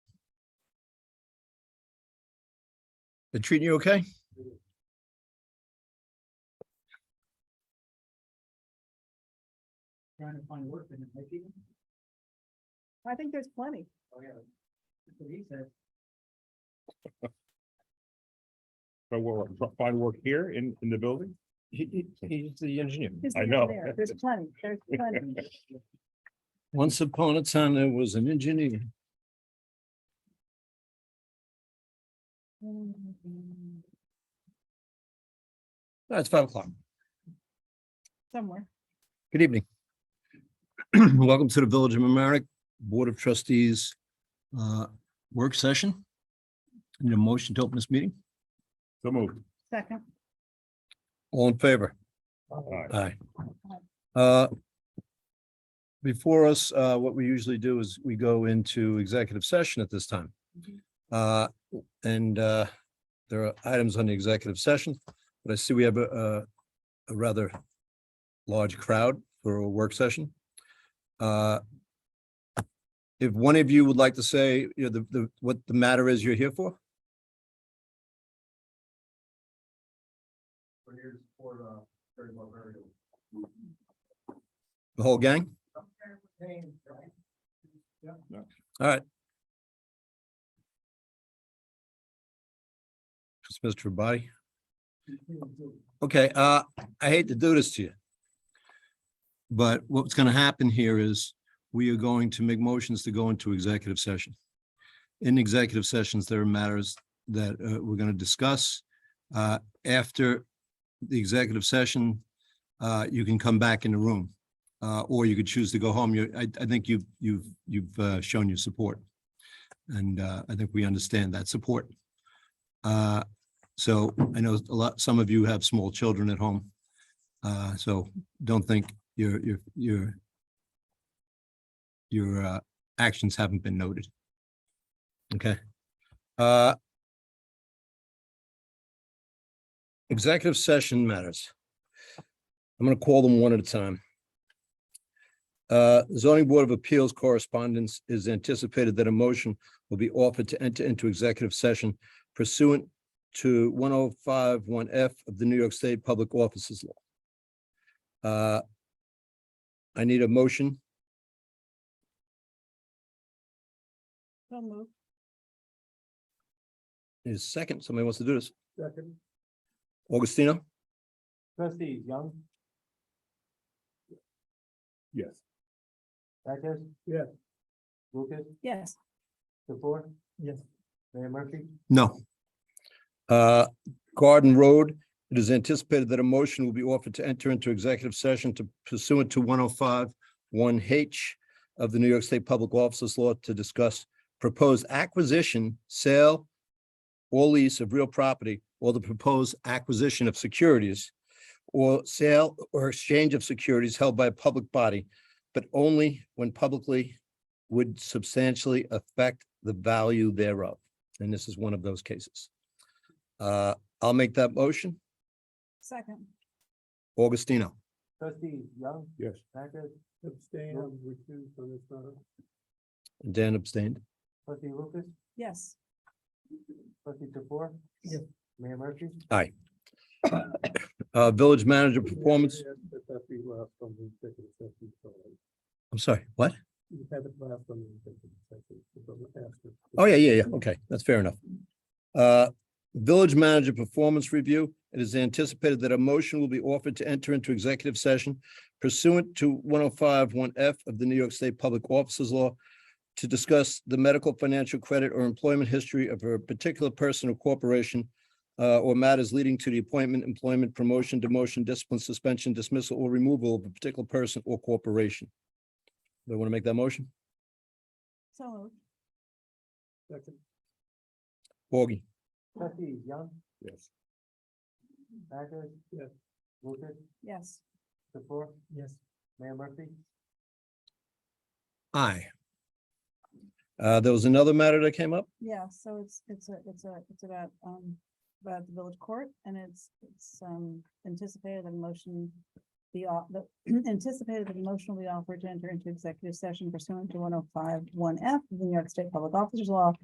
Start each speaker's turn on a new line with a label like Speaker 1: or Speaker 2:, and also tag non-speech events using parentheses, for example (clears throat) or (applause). Speaker 1: They treating you okay?
Speaker 2: Trying to find work in the making.
Speaker 3: I think there's plenty.
Speaker 2: Oh, yeah. That's what he said.
Speaker 4: So we'll tr- find work here in, in the building?
Speaker 1: He, he, he's the engineer.
Speaker 3: Just
Speaker 4: I
Speaker 3: leave it
Speaker 4: know.
Speaker 3: there. There's plenty,
Speaker 4: (laughs)
Speaker 3: there's plenty.
Speaker 1: Once upon a time, there was an engineer. That's Ah, five o'clock.
Speaker 3: Somewhere.
Speaker 1: Good (clears throat) evening. Welcome to the Village of Mamaronek Board of Trustees uh, Work Session. Need a motion to open this meeting?
Speaker 4: So moved.
Speaker 3: Second,
Speaker 1: All in favor?
Speaker 4: Aye.
Speaker 1: Aye. Uh, Before us, uh, what we usually do is we go into executive session at this time. Uh, And uh, there are items on the executive session, but I see we have a a- a rather large crowd for a work session. Uh, If one of you would like to say, you know, the, the, what the matter is you're here for?
Speaker 2: We're here to support, uh, very well burial.
Speaker 1: The whole gang? All right. Just Mr. Body. Okay, uh, I hate to do this to you. But what's gonna happen here is we are going to make motions to go into executive session. In executive sessions, there are matters that uh we're gonna discuss. Uh, after the executive session, uh, you can come back in the room. Uh, or you could choose to go home. You, I I think you've you've you've uh shown your support. And uh, I think we understand that support. Uh, so I know a lot, some of you have small children at home. Uh, so don't think your, your, your your, uh, actions haven't been noted. Okay. Uh, Executive session matters. I'm going to call them one at a time. Uh, zoning board of appeals correspondence is anticipated that a motion will be offered to enter into executive session pursuant to one oh five one F of the New York State Public Offices Law. Uh, I need a motion.
Speaker 3: so move.
Speaker 1: Need a second. Somebody wants to do this.
Speaker 2: Second,
Speaker 1: Augustino,
Speaker 2: trustees, Young,
Speaker 4: Yes.
Speaker 2: Eckes? Yes. Lucas,
Speaker 3: Yes,
Speaker 2: the four? Yes. Mayor Murphy?
Speaker 1: no. Uh, Garden Road, it is anticipated that a motion will be offered to enter into executive session to pursuant to one oh five one H of the New York State Public Offices Law to discuss proposed acquisition, sale, or lease of real property, or the proposed acquisition of securities, or sale or exchange of securities held by a public body, but only when publicly would substantially affect the value thereof. And this is one of those cases. Uh, I'll make that motion.
Speaker 3: second,
Speaker 1: Augustino.
Speaker 2: Trustees, Young,
Speaker 4: Yes.
Speaker 2: Eckes? Abstain, I'm recused on this matter.
Speaker 1: Dan abstained.
Speaker 2: Trustee Lucas,
Speaker 3: yes.
Speaker 2: trustee the four?
Speaker 3: Yes.
Speaker 2: Mayor Murphy?
Speaker 1: Uh, village manager performance,
Speaker 2: That that be last on the executive session, sorry.
Speaker 1: I'm sorry, what?
Speaker 2: You have it last on the executive session, so don't ask it.
Speaker 1: Oh, yeah, yeah, yeah. Okay, that's fair enough. Uh, Village manager performance review. It is anticipated that a motion will be offered to enter into executive session pursuant to one oh five one F of the New York State Public Officers Law to discuss the medical, financial credit, or employment history of a particular person or corporation uh, or matters leading to the appointment, employment, promotion, demotion, discipline, suspension, dismissal, or removal of a particular person or corporation. They want to make that motion?
Speaker 3: So moved.
Speaker 2: Second.
Speaker 1: Augie?
Speaker 2: Trustees, Young,
Speaker 4: Yes.
Speaker 2: Eckes? Yes. Lucas,
Speaker 3: yes.
Speaker 2: the four? Yes. Mayor Murphy?
Speaker 1: Aye. Uh, there was another matter that came up?
Speaker 3: Yeah, so it's, it's a, it's a, it's about, um, about the village court and it's, it's, um, anticipated that a motion. The, the (clears throat) anticipated that a motion will be offered to enter into executive session pursuant to one oh five one F, the New York State Public Officers Law